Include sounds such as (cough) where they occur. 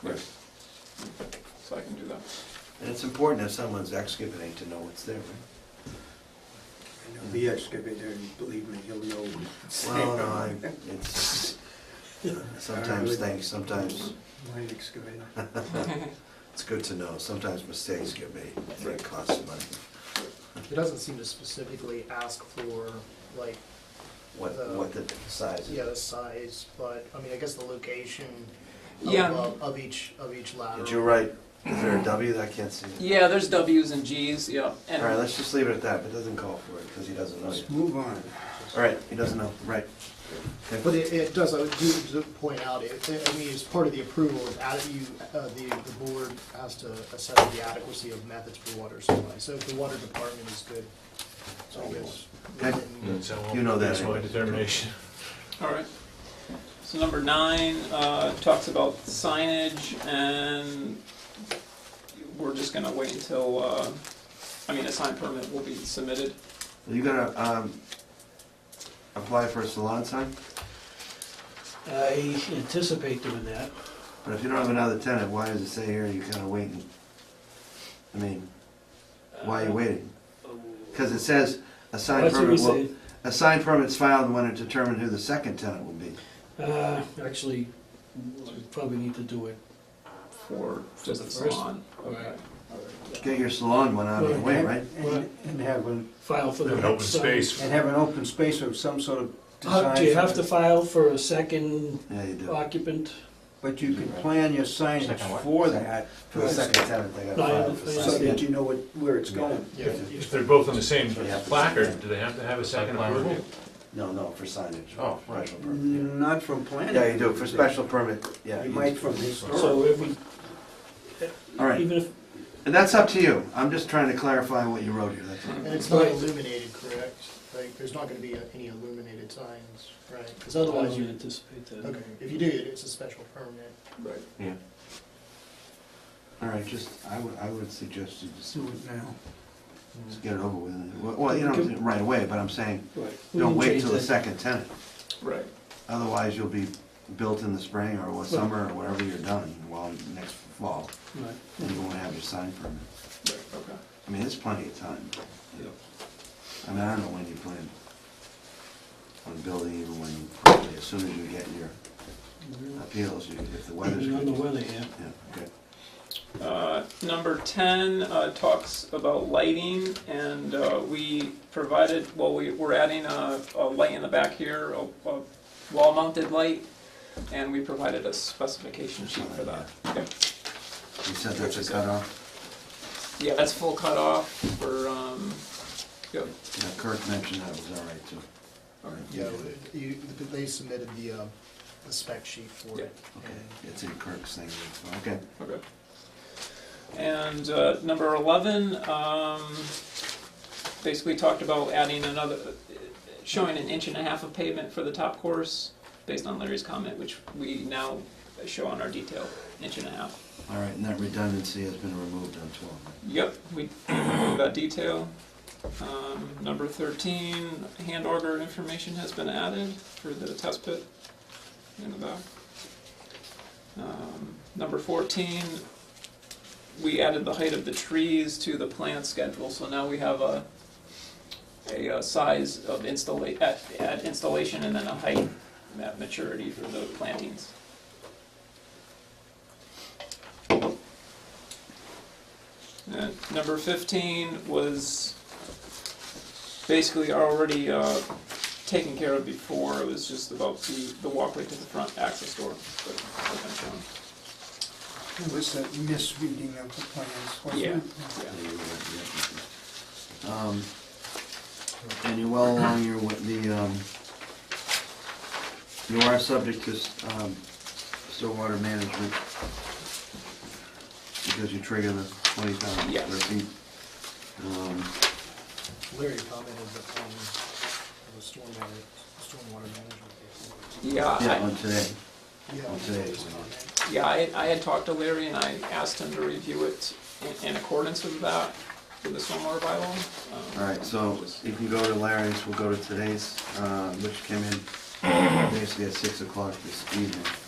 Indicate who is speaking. Speaker 1: clear. So I can do that.
Speaker 2: And it's important if someone's excavating to know what's there, right?
Speaker 3: I know the excavator, and believe me, he'll know.
Speaker 2: Well, no, I,
Speaker 3: (laughs)
Speaker 2: it's, sometimes things, sometimes,
Speaker 3: My excavator.
Speaker 2: it's good to know, sometimes mistakes get made, they cost money.
Speaker 4: It doesn't seem to specifically ask for, like,
Speaker 2: What, what the size
Speaker 4: yeah,
Speaker 2: is.
Speaker 4: the size, but, I mean, I guess the location of,
Speaker 5: Yeah.
Speaker 4: of- of each, of each lateral.
Speaker 2: Did you write, is there a W that I can't see?
Speaker 5: Yeah, there's W's and G's, yeah.
Speaker 2: All right,
Speaker 5: And
Speaker 2: let's just leave it at that, but it doesn't call for it, because he doesn't know
Speaker 3: Let's
Speaker 2: yet.
Speaker 3: move on.
Speaker 2: All right, he doesn't know, right. Okay.
Speaker 4: But it, it does, I would do to point out, it, it- I mean, as part of the approval, it's added, you, uh, the, the board has to assess the adequacy of methods for water supply. So if the water department is good, so I guess.
Speaker 2: Okay.
Speaker 4: within-
Speaker 6: So
Speaker 2: You know that
Speaker 6: That's my
Speaker 2: anyway.
Speaker 6: determination.
Speaker 5: all right. So number nine uh, talks about signage, and we're just gonna wait until. Uh, I mean, a sign permit will be submitted.
Speaker 2: Are you gonna, um, apply for a salon sign?
Speaker 7: I anticipate doing that.
Speaker 2: But if you don't have another tenant, why does it say here you kinda waiting? I mean, why
Speaker 5: uh,
Speaker 2: are you waiting? Because it says a sign
Speaker 7: Let's see what we
Speaker 2: permit will,
Speaker 7: say.
Speaker 2: a sign permit's filed when it determined who the second tenant will be.
Speaker 7: Uh, Actually, we probably need to do it. uh,
Speaker 5: For just the
Speaker 7: the first
Speaker 5: salon. Okay.
Speaker 7: Right.
Speaker 2: Get your salon one out of the way, right?
Speaker 3: And- And have an,
Speaker 7: File for the.
Speaker 6: An open
Speaker 7: sign.
Speaker 6: space.
Speaker 3: and have an open space of some sort of
Speaker 7: How-
Speaker 3: design.
Speaker 7: Uh, Do you have to file for a second
Speaker 2: Yeah, you do.
Speaker 7: occupant?
Speaker 3: But you can plan your signage
Speaker 6: Second what?
Speaker 3: for that,
Speaker 2: For the second tenant, they gotta
Speaker 7: No, I
Speaker 2: file for
Speaker 7: understand.
Speaker 3: so
Speaker 2: sign.
Speaker 3: that you know what, where it's going.
Speaker 4: Yeah.
Speaker 6: If they're both on the same
Speaker 2: Yeah.
Speaker 6: placard, do they have to have a second approval?
Speaker 2: No, no, for signage.
Speaker 6: Oh,
Speaker 2: right. Yeah,
Speaker 3: Not from planning.
Speaker 2: Yeah, you do, for special permit, yeah.
Speaker 3: You might from historical.
Speaker 7: So if we,
Speaker 2: All right,
Speaker 7: even if,
Speaker 2: and that's up to you. I'm just trying to clarify what you wrote here, that's all.
Speaker 4: And it's not
Speaker 7: Right.
Speaker 4: illuminated, correct? Like, there's not gonna be any illuminated signs, right? Because otherwise
Speaker 7: I don't
Speaker 4: you,
Speaker 7: anticipate that.
Speaker 4: okay, if you do, it's a special permit.
Speaker 5: Right.
Speaker 2: All right, just, I would, I would suggest you just
Speaker 3: Do it now.
Speaker 2: just get it over with. Well, Well, you don't, right away, but I'm saying,
Speaker 7: Right. We
Speaker 2: don't
Speaker 7: can
Speaker 2: wait
Speaker 7: change
Speaker 2: till the
Speaker 7: that.
Speaker 2: second tenant.
Speaker 5: Right.
Speaker 2: Otherwise, you'll be built in the spring or what- summer or whatever you're done, well, next fall,
Speaker 7: Right.
Speaker 2: and you won't have your sign permit.
Speaker 5: Right. Okay.
Speaker 2: I mean, there's plenty of time.
Speaker 5: Yep.
Speaker 2: I mean, I don't know when you plan on building, even when, you probably as soon as you get your appeals, you- if the weather's
Speaker 7: Depending on the
Speaker 2: good.
Speaker 7: weather, yeah.
Speaker 2: Yeah, okay.
Speaker 5: Uh, Number 10 uh, talks about lighting, and uh, we provided, well, we- we're adding a a light in the back here, a a wall-mounted light, and we provided a specification sheet for that. Okay.
Speaker 2: You said that's a cutoff?
Speaker 5: Yeah, that's full cutoff for, um, yep.
Speaker 2: Yeah, Kirk mentioned that was all right, too.
Speaker 4: Yeah, you, they submitted the, uh, the spec sheet for it.
Speaker 2: Okay,
Speaker 4: and-
Speaker 2: it's in Kirk's thing, that's- okay.
Speaker 5: Okay. And uh, number 11, um, basically talked about adding another, showing an inch and a half of pavement for the top course, based on Larry's comment, which we now show on our detail, inch and a half.
Speaker 2: All right, and that redundancy has been removed on twelve. right?
Speaker 5: Yep, we (clears throat) got detail. Um, Number 13, hand order information has been added for the test pit in the back. Um, Number 14, we added the height of the trees to the plan schedule, so now we have a, a uh, size of installa, at, at installation and then a height at maturity for the plantings. And number 15 was basically already uh, taken care of before, it was just about the, the walkway to the front access door. but I've been shown.
Speaker 3: It was a misreading of the plans, wasn't
Speaker 5: Yeah.
Speaker 3: it?
Speaker 5: Yeah.
Speaker 2: Yeah, you're right, yeah. Um, And you're well along your, wa- the, um, you are subject to s- um, still water management because you trigger the twenty thousand
Speaker 5: Yes.
Speaker 2: square feet. Um,
Speaker 4: Larry commented that, um, the stormwater, stormwater management.
Speaker 5: Yeah,
Speaker 2: Yeah,
Speaker 5: I,
Speaker 2: on today.
Speaker 4: Yeah.
Speaker 2: Well, today is-
Speaker 5: yeah, I, I had talked to Larry and I asked him to review it in, in accordance with that, with the stormwater bylaw. um,
Speaker 2: All right, so you can go to Larry's, we'll go to today's, uh, which came in basically at six o'clock this evening. Um,